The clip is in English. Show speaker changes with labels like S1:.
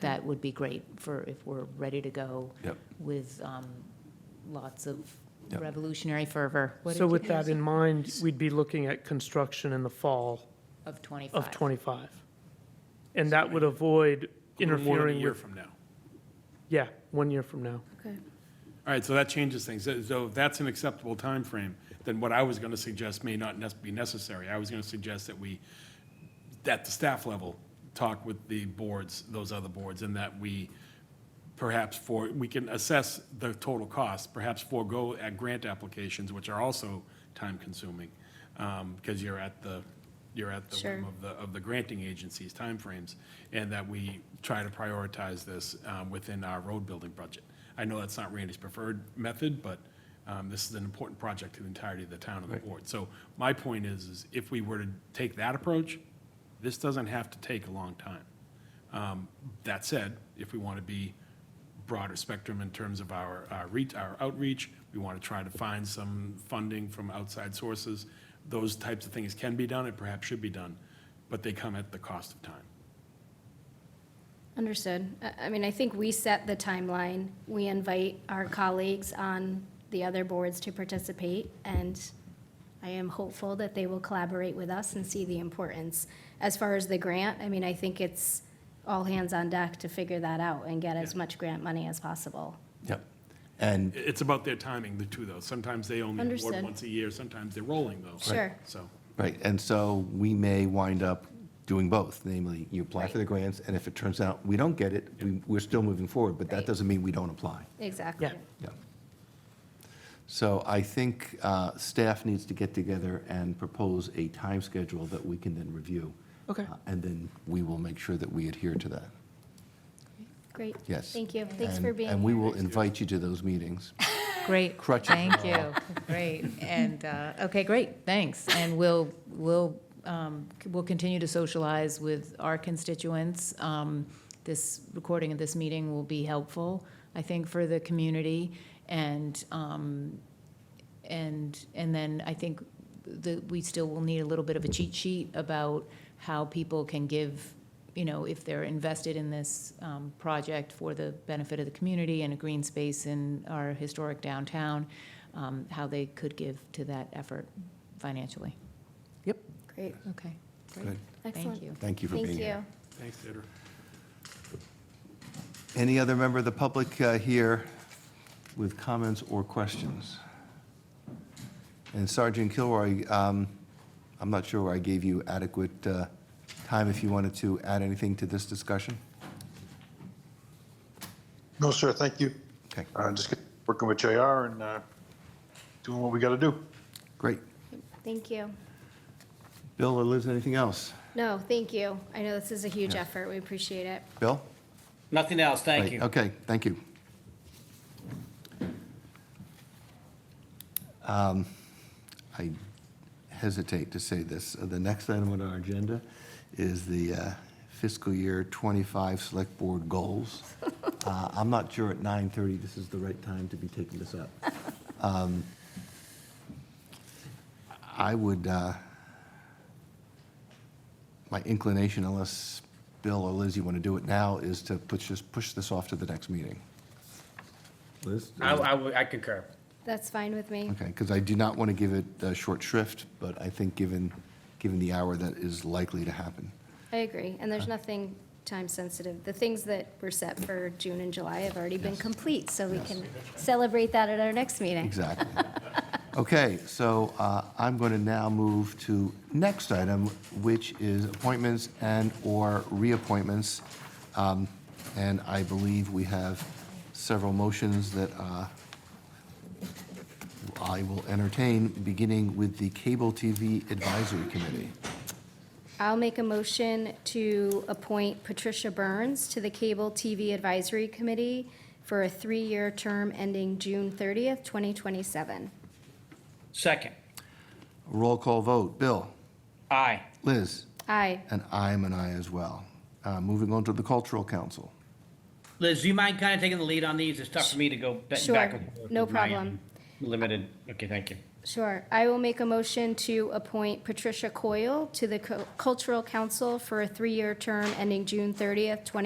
S1: that would be great for, if we're ready to go
S2: Yep.
S1: with um, lots of
S2: Yep.
S1: revolutionary fervor
S3: So with that in mind, we'd be looking at construction in the fall
S1: of 25.
S3: of '25. And that would avoid
S4: More than a
S3: interfering
S4: year
S3: with,
S4: from now.
S3: yeah, one year from now.
S5: Okay.
S4: All right, so that changes things. So- So if that's an acceptable time frame. then what I was going to suggest may not nes- be necessary. I was going to suggest that we, at the staff level, talk with the boards, those other boards, and that we perhaps for, we can assess the total cost, perhaps forego at grant applications, which are also time-consuming, um, because you're at the, you're at the whim
S5: Sure.
S4: of the, of the granting agency's timeframes, and that we try to prioritize this um, within our road-building budget. I know that's not Randy's preferred method, but um, this is an important project to the entirety of the town and the board. So my point is, is if we were to take that approach, this doesn't have to take a long time. Um, That said, if we want to be broader spectrum in terms of our, our reach, our outreach, we want to try to find some funding from outside sources. Those types of things can be done and perhaps should be done, but they come at the cost of time.
S5: Understood. I, I mean, I think we set the timeline. We invite our colleagues on the other boards to participate, and I am hopeful that they will collaborate with us and see the importance. As far as the grant, I mean, I think it's all hands on deck to figure that out and get as
S4: Yeah.
S5: much grant money as possible.
S2: Yep. And
S4: I- It's about their timing, the two, though. Sometimes they only award
S5: Understood.
S4: once a year, sometimes they're rolling, though.
S5: Sure.
S4: So,
S2: Right, and so we may wind up doing both, namely, you apply for the grants, and if it turns out we don't get it, we- we're still moving forward, but that
S5: Right.
S2: doesn't mean we don't apply.
S5: Exactly.
S3: Yeah.
S2: Yeah. So I think uh, staff needs to get together and propose a time schedule that we can then review.
S3: Okay.
S2: Uh, And then we will make sure that we adhere to that.
S5: Great.
S2: Yes.
S5: Thank you. Thanks
S2: And-
S5: for being here.
S2: And we will invite you to those meetings.
S1: Great.
S2: Crutches
S1: Thank you. Great. And, uh, okay, great, thanks. And we'll, we'll, um, c- we'll continue to socialize with our constituents. Um, This recording of this meeting will be helpful, I think, for the community. And, um, and, and then I think that we still will need a little bit of a cheat sheet about how people can give, you know, if they're invested in this um, project for the benefit of the community and a green space in our historic downtown, um, how they could give to that effort financially.
S5: Great.
S1: Okay,
S2: Good.
S1: great.
S5: Excellent.
S1: Thank you.
S2: Thank you for being
S5: Thank
S2: here.
S5: you.
S4: thanks, Deirdre.
S2: Any other member of the public uh, here with comments or questions? And Sergeant Kilroy, um, I'm not sure I gave you adequate uh, time if you wanted to add anything to this discussion?
S6: No, sir, thank you.
S2: Okay,
S6: Uh, Just get- working with JR and uh, doing what we got to do.
S2: great.
S5: Thank you.
S2: Bill or Liz, anything else?
S5: No, thank you. I know this is a huge effort. We appreciate it.
S2: Bill?
S7: Nothing else, thank
S2: Right,
S7: you.
S2: Okay, thank you. Um, I hesitate to say this. Uh, The next item on our agenda is the uh, fiscal year '25 Select Board Goals. Uh, I'm not sure at 9:30 this is the right time to be taking this up. Um, I would, uh, my inclination, unless Bill or Liz, you want to do it now, is to push this, push this off to the next meeting. Liz?
S7: I, I would- I concur.
S5: That's fine with me.
S2: Okay, because I do not want to give it uh, short shrift, but I think given, given the hour, that is likely to happen.
S5: I agree, and there's nothing time-sensitive. The things that were set for June and July have already been complete, so we can celebrate that at our next meeting.
S2: Exactly. Okay, so uh, I'm going to now move to next item, which is appointments and/or reappointments. Um, And I believe we have several motions that uh, I will entertain, beginning with the Cable TV Advisory Committee.
S5: I'll make a motion to appoint Patricia Burns to the Cable TV Advisory Committee for a three-year term ending June 30th, 2027.
S7: Second,
S2: Roll call vote. Bill?
S7: aye.
S2: Liz?
S5: Aye.
S2: And I'm an aye as well. Uh, Moving on to the Cultural Council.
S7: Liz, do you mind kind of taking the lead on these? It's tough for me to go ba-
S5: Sure,
S7: back and forth.
S5: no
S7: with my,
S5: problem.
S7: um, Limited, okay, thank you.
S5: Sure. I will make a motion to appoint Patricia Coyle to the Co- Cultural Council for a three-year term ending June 30th, 2027.